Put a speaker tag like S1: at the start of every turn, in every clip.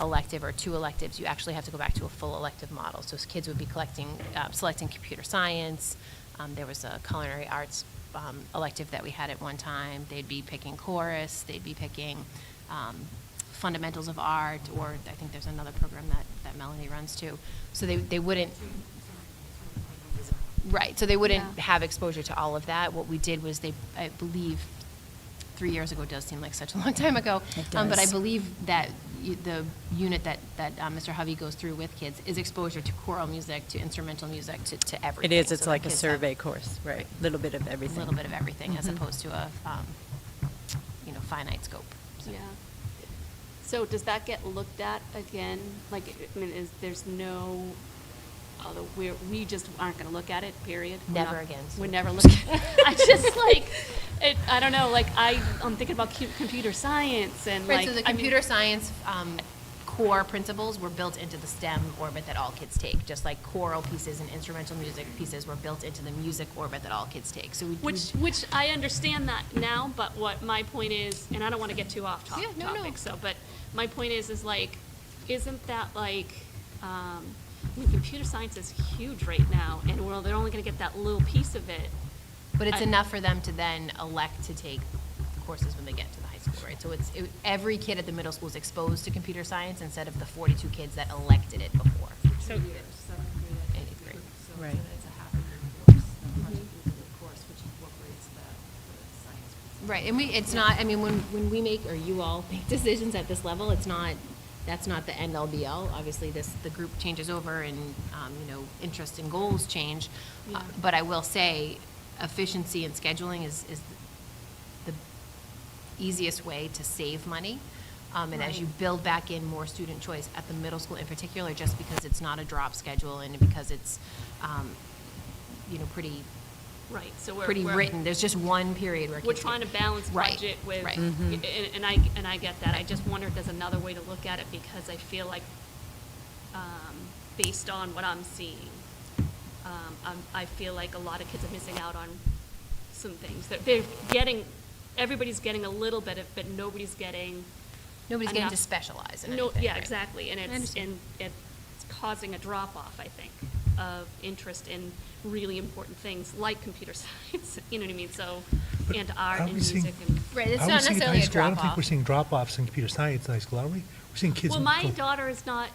S1: elective or two electives, you actually have to go back to a full elective model. So s- kids would be collecting, uh, selecting computer science. Um, there was a culinary arts um, elective that we had at one time. They'd be picking chorus. They'd be picking um, fundamentals of art, or I think there's another program that, that Melanie runs too. So they, they wouldn't Right, so they wouldn't
S2: Yeah.
S1: have exposure to all of that. What we did was they, I believe, three years ago does seem like such a long time ago.
S3: It
S1: um, But I
S3: does.
S1: believe that y- the unit that, that uh, Mr. Hovey goes through with kids is exposure to choral music, to instrumental music, to, to
S3: It
S1: everything.
S3: is,
S1: So
S3: it's
S1: the
S3: like a
S1: kids have
S3: survey course, right, little bit of
S1: A
S3: everything.
S1: little bit of everything, as
S3: Mhm.
S1: opposed to a, um, you know, finite scope. So-
S2: Yeah. So does that get looked at again? Like, I mean, is, there's no, other we're, we just aren't gonna look at it, period? We're
S1: Never
S2: not-
S1: again.
S2: We're never looking. I just like, it, I don't know, like, I, I'm thinking about cu- computer science and like.
S1: Right, so the
S2: I mean-
S1: computer science um, core principles were built into the STEM orbit that all kids take, just like choral pieces and instrumental music pieces were built into the music orbit that all kids take. So we
S2: Which, which I understand that now, but what my point is, and I don't want to get too off top-
S1: Yeah, no, no.
S2: topic, so, but my point is, is like, isn't that like, um, I mean, computer science is huge right now, and we're, they're only going to get that little piece of it.
S1: But it's
S2: I-
S1: enough for them to then elect to take courses when they get to the high school, right? So it's, it- every kid at the middle school is exposed to computer science instead of the 42 kids that elected it before.
S2: So,
S1: Eighth grade.
S4: So
S3: Right.
S4: then it's a half a year course, a project
S1: Mm-hmm.
S4: group course, which incorporates the the science. piece.
S1: Right, and we, it's not, I mean, when, when we make, or you all make decisions at this level, it's not, that's not the end all be all. Obviously, this, the group changes over and, um, you know, interests and goals change. Uh,
S2: Yeah.
S1: But I will say, efficiency and scheduling is, is the easiest way to save money. Um, and as you build back in more student choice at the middle school in particular, just because it's not a drop schedule and because it's, um, you know, pretty,
S2: right, so we're.
S1: pretty
S2: we're-
S1: written. There's just one period where kids.
S2: We're
S1: get-
S2: trying to balance
S1: Right,
S2: budget with,
S1: right.
S2: and, and I, and I get that. I just wonder if there's another way to look at it, because I feel like, um, based on what I'm seeing, um, I'm, I feel like a lot of kids are missing out on some things. That they're getting, everybody's getting a little bit of, but nobody's getting.
S1: Nobody's getting to
S2: enough-
S1: specialize in
S2: No,
S1: anything,
S2: yeah,
S1: right?
S2: exactly, and
S1: I
S2: it's,
S1: understand.
S2: and it's causing a drop-off, I think, of interest in really important things like computer science, you know what I mean, so,
S5: But
S2: and art
S5: are
S2: and
S5: we seeing-
S2: music and.
S1: Right, it's
S5: I
S1: not
S5: would think at
S1: necessarily
S5: high
S1: a
S5: school, I don't
S1: drop-off.
S5: think we're seeing drop-offs in computer science in high school, are we? We're seeing kids.
S2: Well, my
S5: go-
S2: daughter is not,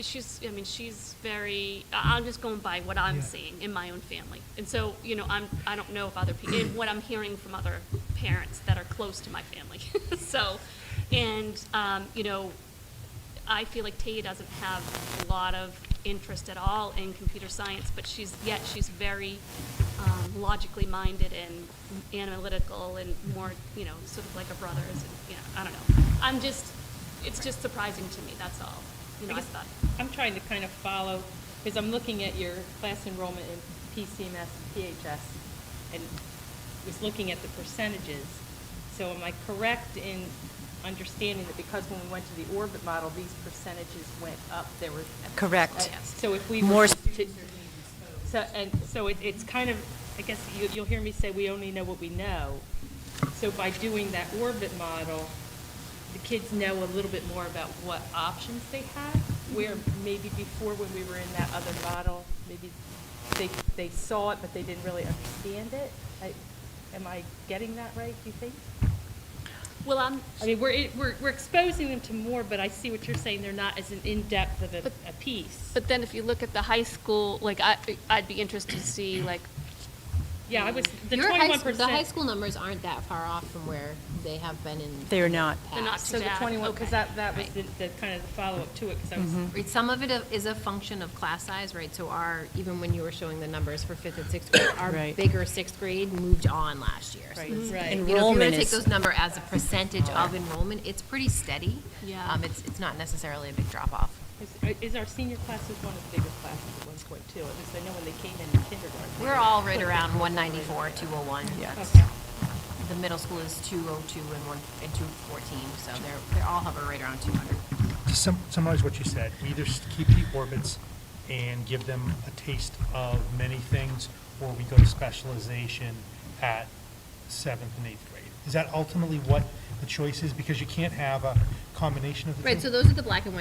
S2: she's, I mean, she's very, I- I'm just going by what I'm
S5: Yeah.
S2: seeing in my own family. And so, you know, I'm, I don't know if other people, and what I'm hearing from other parents that are close to my family. So, and, um, you know, I feel like Taya doesn't have a lot of interest at all in computer science, but she's, yet she's very um, logically minded and analytical and more, you know, sort of like her brothers, and, you know, I don't know. I'm just, it's just surprising to me, that's all. You know, I
S6: guess
S2: thought,
S6: I'm trying to kind of follow, because I'm looking at your class enrollment in PCMS and PHS, and was looking at the percentages. So am I correct in understanding that because when we went to the orbit model, these percentages went up, there were.
S3: Correct.
S6: Uh, So if we. were
S3: More
S6: to-
S3: stu-
S6: So, and, so it, it's kind of, I guess you, you'll hear me say, we only know what we know. So by doing that orbit model, the kids know a little bit more about what options they have, where maybe before when we were in that other model, maybe they, they saw it, but they didn't really understand it. I- Am I getting that right, do you think?
S2: well, I'm,
S6: I mean, we're, we're, we're exposing them to more, but I see what you're saying, they're not as an in-depth of a,
S2: But-
S6: a piece.
S2: but then if you look at the high school, like, I, I'd be interested to see, like,
S6: Yeah, I was, the
S1: Your high
S6: twenty-one
S1: school-
S6: percent.
S1: The high school numbers aren't that far off from where they have been in.
S3: They are not.
S1: the
S2: They're not
S1: past.
S6: So the
S2: Bad,
S6: twenty-one, because
S1: okay. Mm-hmm.
S6: that, that was
S1: Right.
S6: the, the kind of the follow-up to it, because I was
S1: Right, Some of it i- is a function of class size, right? So our, even when you were showing the numbers for fifth and sixth grade, our
S3: Right.
S1: bigger sixth grade moved on last year. So
S6: Right.
S1: it's-
S6: Right.
S1: You know, if you were to
S3: Enrollment
S1: take
S3: is-
S1: those number as a percentage of enrollment, it's pretty steady.
S2: Yeah.
S1: Um, It's, it's not necessarily a big drop-off.
S6: Is, uh, is our senior class is one of the bigger classes at one point too? At least I know when they came in kindergarten.
S1: We're all right around 194, 201.
S3: Yeah.
S6: Okay.
S1: The middle school is 202 and one, and 214, so they're, they all hover right around 200.
S5: To sum- summarize what you said, we either s- keep the orbits and give them a taste of many things, or we go to specialization at seventh and eighth grade. Is that ultimately what
S7: the choices, because you can't have a combination of the two.
S5: Right, so those are the black and white